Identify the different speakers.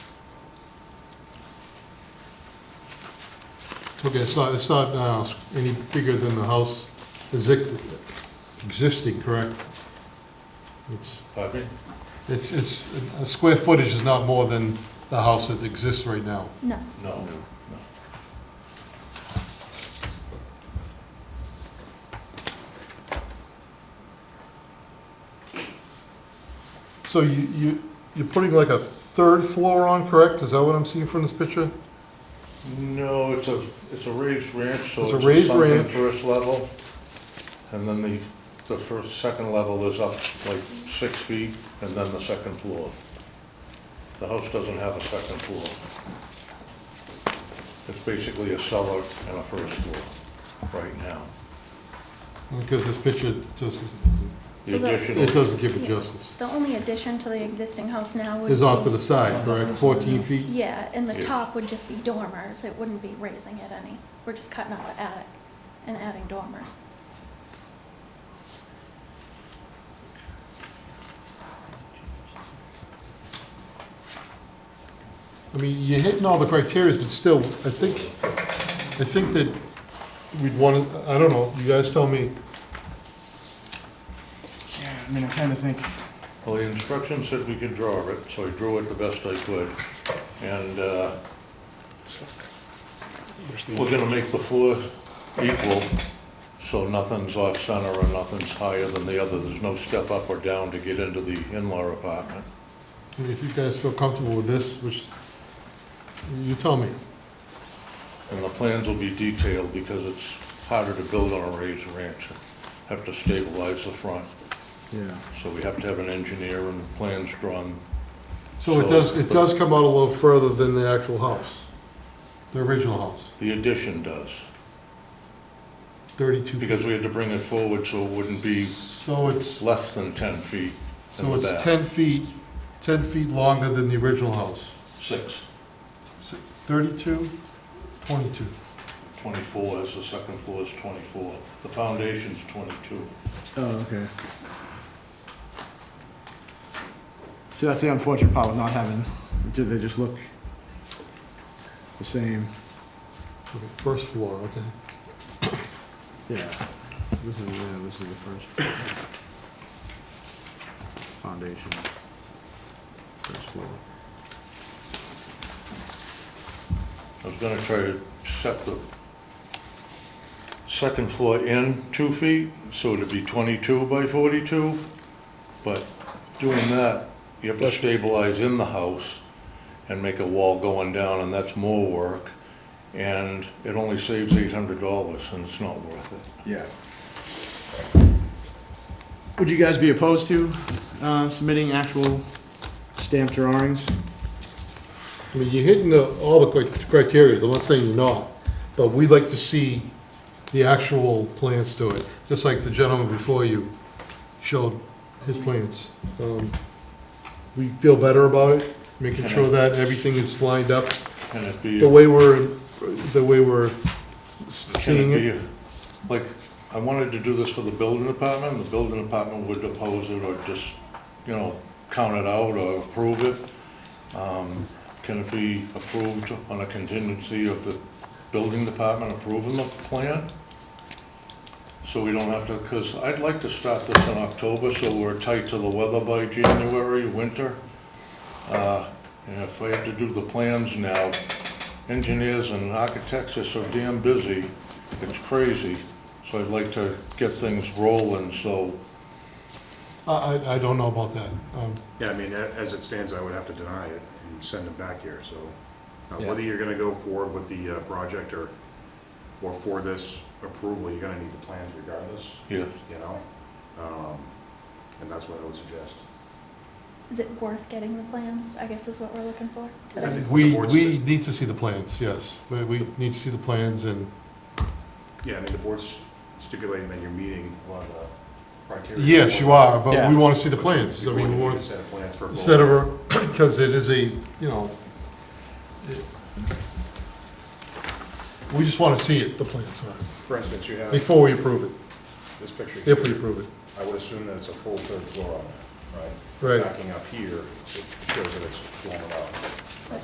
Speaker 1: Okay, it's not, it's not uh, any bigger than the house is ex- existing, correct? It's,
Speaker 2: Pardon me?
Speaker 1: it's, it's, uh, square footage is not more than the house that exists right now.
Speaker 3: No.
Speaker 2: No, no.
Speaker 1: So you, you, you're putting like a third floor on, correct? Is that what I'm seeing from this picture?
Speaker 2: No, it's a, it's a raised ranch, so
Speaker 1: It's
Speaker 2: it's
Speaker 1: a
Speaker 2: a
Speaker 1: raised
Speaker 2: sunken
Speaker 1: ranch.
Speaker 2: first level. And then the, the first, second level is up like six feet, and then the second floor. The house doesn't have a second floor. It's basically a cellar and a first floor right now.
Speaker 1: Because this picture just, is-
Speaker 2: The
Speaker 3: So the,
Speaker 2: additional,
Speaker 1: it doesn't give it
Speaker 3: Yeah.
Speaker 1: justice.
Speaker 3: the only addition to the existing house now would be.
Speaker 1: It's off to the side, correct? Fourteen feet?
Speaker 3: Yeah, and the
Speaker 2: Yeah.
Speaker 3: top would just be dormers, it wouldn't be raising it any. We're just cutting out the attic and adding dormers.
Speaker 1: I mean, you're hitting all the criteria, but still, I think, I think that we'd want to, I don't know, you guys tell me.
Speaker 4: Yeah, I mean, I'm trying to think.
Speaker 2: well, the instructions said we could draw it, so I drew it the best I could. And, uh, We're gonna make the floor equal, so nothing's off center or nothing's higher than the other. There's no step up or down to get into the in-law apartment.
Speaker 1: I mean, If you guys feel comfortable with this, which, you tell me.
Speaker 2: And the plans will be detailed because it's harder to build on a raised ranch. Have to stabilize the front,
Speaker 4: Yeah.
Speaker 2: so we have to have an engineer and plans drawn.
Speaker 1: So it does, it does come out a little further than the actual house, the original house,
Speaker 2: The addition does,
Speaker 1: thirty-two feet.
Speaker 2: because we had to bring it forward so it wouldn't be
Speaker 1: So it's,
Speaker 2: less than 10 feet in
Speaker 1: so
Speaker 2: the
Speaker 1: it's
Speaker 2: back.
Speaker 1: ten feet, ten feet longer than the original house.
Speaker 2: Six,
Speaker 1: Si- Thirty-two, twenty-two.
Speaker 2: 24 is the second floor is 24. The foundation's 22.
Speaker 4: Oh, okay. So that's the unfortunate part with not having, do they just look the same?
Speaker 1: Okay, First floor, okay.
Speaker 4: Yeah. This is, yeah, this is the first. Foundation. First floor.
Speaker 2: I was gonna try to set the second floor in two feet, so it'd be twenty-two by forty-two, but doing that, you have to stabilize in the house and make a wall going down, and that's more work, and it only saves eight hundred dollars, and it's not worth it.
Speaker 4: Yeah. Would you guys be opposed to uh, submitting actual stamped drawings?
Speaker 1: I mean, you're hitting the, all the cri- criteria, I'm not saying you're not, but we'd like to see the actual plans to it, just like the gentleman before you showed his plans. Um, We feel better about it, making sure that everything is lined up,
Speaker 2: Can it be,
Speaker 1: the way we're, the way we're
Speaker 2: can
Speaker 1: seeing it.
Speaker 2: it be, like, I wanted to do this for the building department, the building department would oppose it or just, you know, count it out or approve it. Um, Can it be approved on a contingency of the building department approving the plan? So we don't have to, because I'd like to start this in October, so we're tight to the weather by January, winter. Uh, And if I have to do the plans now, engineers and architects are so damn busy, it's crazy. So I'd like to get things rolling, so
Speaker 1: I, I, I don't know about that. Um,
Speaker 5: Yeah, I mean, a- as it stands, I would have to deny it and send it back here, so uh, whether you're gonna go forward with the uh, project or, or for this approval, you're gonna need the plans regardless,
Speaker 2: yeah,
Speaker 5: you know? Um, And that's what I would suggest.
Speaker 3: Is it worth getting the plans, I guess is what we're looking for
Speaker 5: I
Speaker 3: today?
Speaker 5: think the
Speaker 1: We,
Speaker 5: board's-
Speaker 1: we need to see the plans, yes. We, we need to see the plans and,
Speaker 5: Yeah, I mean, the board's stipulating that you're meeting a lot of the criteria.
Speaker 1: yes, you are, but we
Speaker 4: Yeah.
Speaker 1: want to see the plans. I
Speaker 5: Before you
Speaker 1: mean, we
Speaker 5: can
Speaker 1: want,
Speaker 5: set plans for both.
Speaker 1: instead of, a because it is a, you know, it- we just want to see it, the plans, all right,
Speaker 5: For instance, you have
Speaker 1: before we approve it,
Speaker 5: this picture.
Speaker 1: if
Speaker 5: here.
Speaker 1: we approve it.
Speaker 5: I would assume that it's a full third floor on it, right?
Speaker 1: Right.
Speaker 5: Backing up here, it shows that it's blown out.